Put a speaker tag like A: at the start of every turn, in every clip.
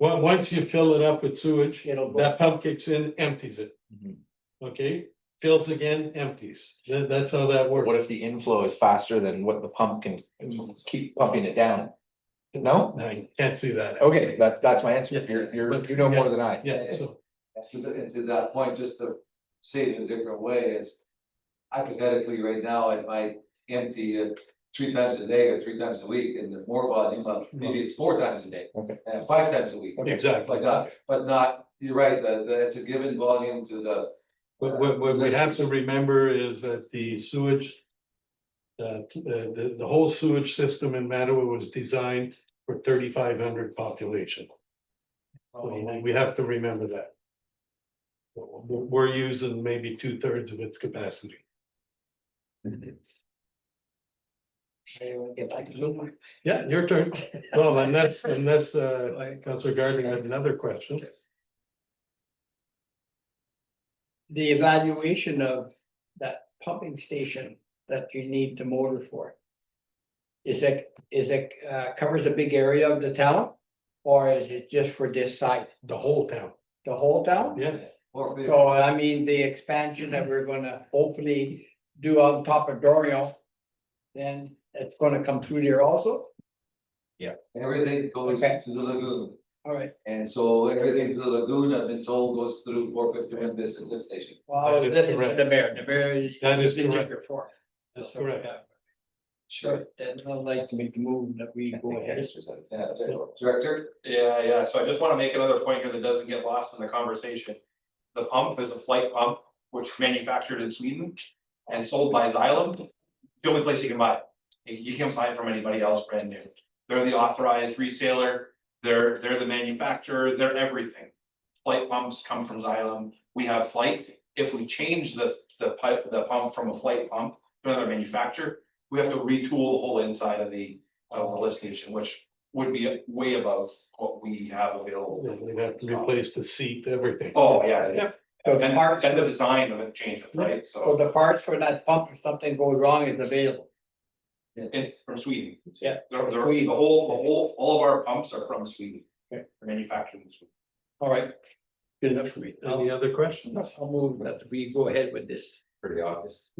A: Well, once you fill it up with sewage,
B: It'll go.
A: that pump kicks in, empties it,
C: Mhm.
A: okay? Fills again, empties. That, that's how that
C: Or what
A: works.
C: if the inflow is faster than what the pump can keep pumping it down? No?
A: I can't see that.
C: Okay, that, that's my answer.
A: Yeah.
C: You're, you're, you know more than I.
A: Yeah, so,
D: So to- and to that point, just to say it in a different way is hypothetically, right now, I might empty it three times a day or three times a week and the more volume, but maybe it's four times a day.
C: Okay.
D: And five times a week,
A: exactly.
D: like that, but not, you're right, the, the, it's a given volume to the,
A: What, what, what we have to remember is that the sewage. Uh, the, the, the whole sewage system in Mattawa was designed for thirty-five hundred population.
B: Oh,
A: So we have to remember that. We're, we're using maybe two-thirds of its capacity.
B: Get back to Zoom.
A: Yeah, your turn. Well, unless, unless, uh, Councilor Gardner had another question.
B: The evaluation of that pumping station that you need the motor for. Is it, is it, uh, covers a big area of the town? Or is it just for this site,
A: The whole town,
B: the whole town?
A: yeah.
D: or maybe-
B: So I mean, the expansion that we're gonna hopefully do on top of Dorio. Then it's gonna come through there also,
D: everything goes
B: Okay.
D: to the lagoon.
B: alright,
D: And so everything to the lagoon and it's all goes through four fifty-one business lift station.
B: well,
A: That is
B: listen to
A: correct.
B: the mayor, the mayor.
A: That is
B: been here
A: correct.
B: Before.
A: That's correct.
B: Sure, then I'd like to make the move that we go ahead.
D: Director,
E: Yeah, yeah, so I just wanna make another point here that doesn't get lost in the conversation. The pump is a flight pump, which manufactured in Sweden and sold by Xylem. The only place you can buy it. You you can't buy it from anybody else brand new. They're the authorized reseller, they're, they're the manufacturer, they're everything. Flight pumps come from Xylem, we have flight, if we change the, the pipe, the pump from a flight pump to another manufacturer, we have to retool the whole inside of the, of the lift station, which would be way above what we have available.
A: We'd have to replace the seat, everything.
E: Oh, yeah, yeah,
B: So the
E: and
B: parts,
E: and the design of it changes, right,
B: so
E: so
B: the parts for that pump if something goes wrong is available.
E: it's from Sweden.
B: Yeah.
E: The the- the
B: Sweden.
E: whole, the whole, all of our pumps are from Sweden.
B: Okay.
E: They're Manufactured in Sweden.
B: All right. Good enough for me.
A: Any
B: I'll
A: other questions?
B: I'll move that we go ahead with this.
D: pretty obvious.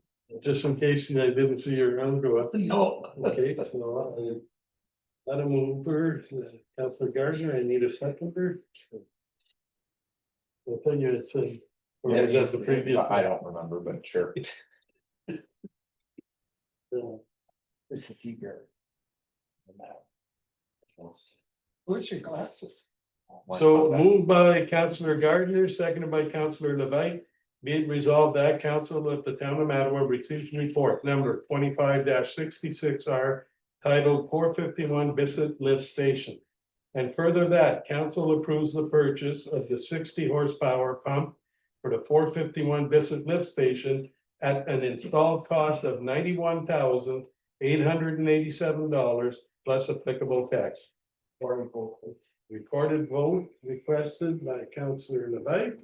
A: Just in case I didn't see your hand go up.
B: No.
A: Okay, so I. Let him over, Councilor Gardner, I need a seconder. I'll tell you, it's a. Or was that the previous?
C: I I don't remember, but sure.
A: one?
B: This is eager. Where's your glasses?
C: oh,
A: So moved by Councilor Gardner, seconded by Councilor Levite. Be it resolved that council of the town of Mattawa receives report number twenty-five sixty-six R titled four fifty-one Bissett Lift Station. And further that, council approves the purchase of the sixty horsepower pump for the four fifty-one Bissett Lift Station at an installed cost of ninety-one thousand eight hundred and eighty-seven dollars plus applicable tax. Recorded vote requested by Counselor Levite.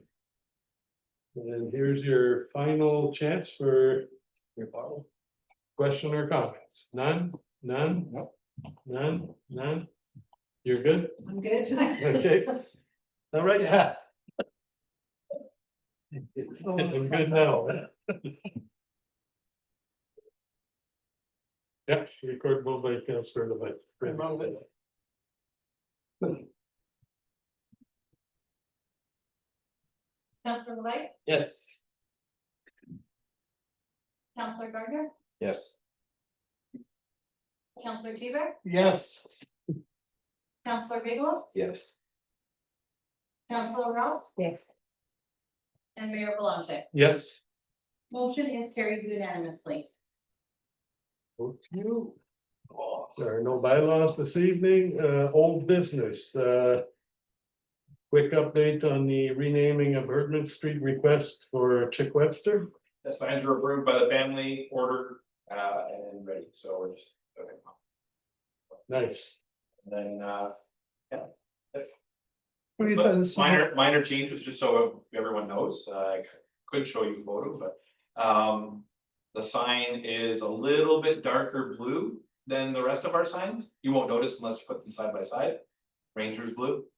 A: And here's your final chance for
B: Your bottle.
A: question or comments. None, none,
B: Nope.
A: none, none. You're good?
F: I'm good.
A: Okay. All right. Yeah. I'm good now. Yes, record vote by Counselor Levite.
F: Counselor Levite,
B: Yes.
F: Counselor Gardner,
C: Yes.
F: Counselor Teeber,
B: Yes.
F: Counselor Bigelow,
C: Yes.
F: Counselor Rouse,
G: Yes.
F: and Mayor Belanger.
A: Yes.
F: Motion is carried unanimously.
B: You.
A: There are no bylaws this evening, uh, old business, uh. Quick update on the renaming of Erdman Street request for Chick Webster.
E: The signs were approved by the family, ordered, uh, and ready, so we're just. okay.
A: Nice.
E: And Then, uh,
B: Please.
E: But Minor, minor changes, just so everyone knows, uh, I could show you a photo, but, um. The sign is a little bit darker blue than the rest of our signs, you won't notice unless you put them side by side. Ranger's blue,